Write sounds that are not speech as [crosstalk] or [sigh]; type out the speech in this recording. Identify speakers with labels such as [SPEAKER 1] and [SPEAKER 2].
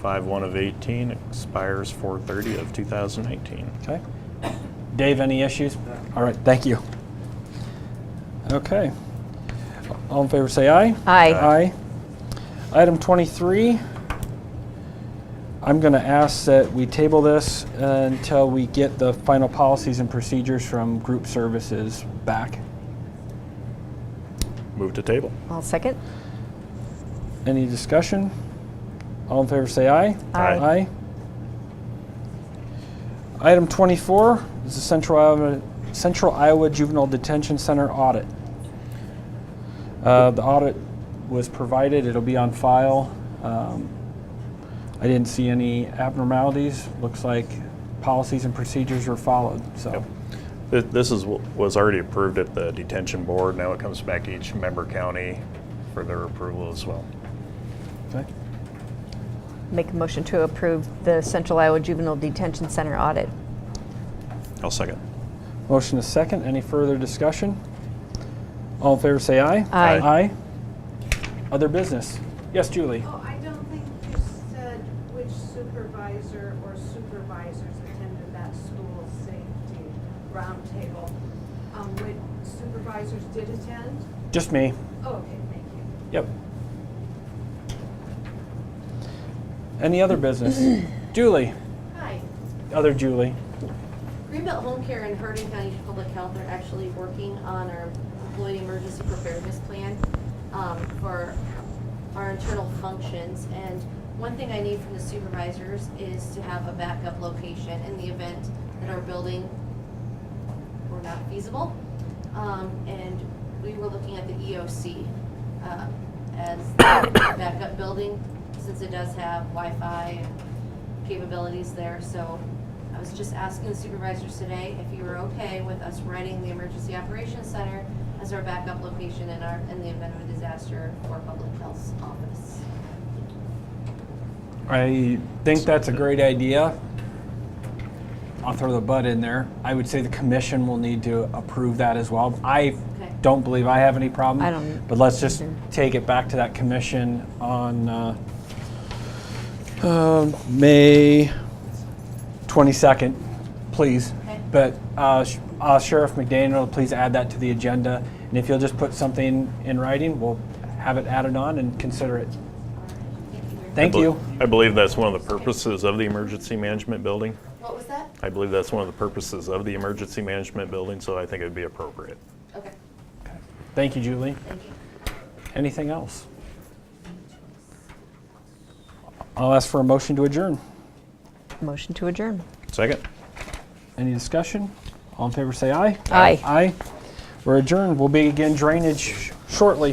[SPEAKER 1] Five one of 18, expires 4:30 of 2018.
[SPEAKER 2] Okay. Dave, any issues? All right, thank you. Okay. All in favor, say aye.
[SPEAKER 3] Aye.
[SPEAKER 2] Aye. Item 23, I'm going to ask that we table this until we get the final policies and procedures from group services back.
[SPEAKER 1] Move to table.
[SPEAKER 3] I'll second.
[SPEAKER 2] Any discussion? All in favor, say aye.
[SPEAKER 1] Aye.
[SPEAKER 2] Aye. Item 24 is the Central Iowa, Central Iowa Juvenile Detention Center audit. Uh, The audit was provided, it'll be on file. Um, I didn't see any abnormalities, looks like policies and procedures were followed, so.
[SPEAKER 1] Th- This is, wh- was already approved at the detention board. Now it comes back to each member county for their approval as well.
[SPEAKER 2] Okay.
[SPEAKER 3] Make a motion to approve the Central Iowa Juvenile Detention Center audit.
[SPEAKER 1] I'll second.
[SPEAKER 2] Motion is second, any further discussion? All in favor, say aye.
[SPEAKER 3] Aye.
[SPEAKER 2] Aye. Other business? Yes, Julie?
[SPEAKER 4] Oh, I don't think you said which supervisor or supervisors attended that school safety roundtable. Um, which supervisors did attend?
[SPEAKER 2] Just me.
[SPEAKER 4] Oh, okay, thank you.
[SPEAKER 2] Yep. Any other business? [clears throat] Julie,
[SPEAKER 5] Hi.
[SPEAKER 2] other Julie.
[SPEAKER 5] Greenbelt Home Care and Hardin County Public Health are actually working on our employee emergency preparedness plan um, for our internal functions. And one thing I need from the supervisors is to have a backup location in the event that our building were not feasible. Um, And we were looking at the EOC uh, as the [coughs] backup building, since it does have Wi-Fi capabilities there. So I was just asking the supervisors today if you were okay with us renting the Emergency Operations Center as our backup location in our, in the event of a disaster for Public Health's office.
[SPEAKER 2] I think that's a great idea. I'll throw the butt in there. I would say the commission will need to approve that as well. I
[SPEAKER 5] Okay.
[SPEAKER 2] don't believe I have any problem.
[SPEAKER 3] I don't
[SPEAKER 2] But let's just
[SPEAKER 3] either.
[SPEAKER 2] take it back to that commission on uh, um, May 22nd, please.
[SPEAKER 5] Okay.
[SPEAKER 2] But uh, Sh- uh, Sheriff McDaniel, please add that to the agenda. And if you'll just put something in writing, we'll have it added on and consider it.
[SPEAKER 5] All right, Thank you. very
[SPEAKER 2] Thank
[SPEAKER 1] I bel-
[SPEAKER 2] you.
[SPEAKER 1] I believe that's one of the purposes of the emergency management building.
[SPEAKER 5] much. What was that?
[SPEAKER 1] I believe that's one of the purposes of the emergency management building, so I think it'd be appropriate.
[SPEAKER 5] Okay,
[SPEAKER 2] Thank you, Julie.
[SPEAKER 5] thank you.
[SPEAKER 2] Anything else? I'll ask for a motion to adjourn.
[SPEAKER 3] Motion to adjourn.
[SPEAKER 1] Second?
[SPEAKER 2] Any discussion? All in favor, say aye.
[SPEAKER 3] Aye.
[SPEAKER 2] Aye. We're adjourned. We'll be again drainage sh- shortly.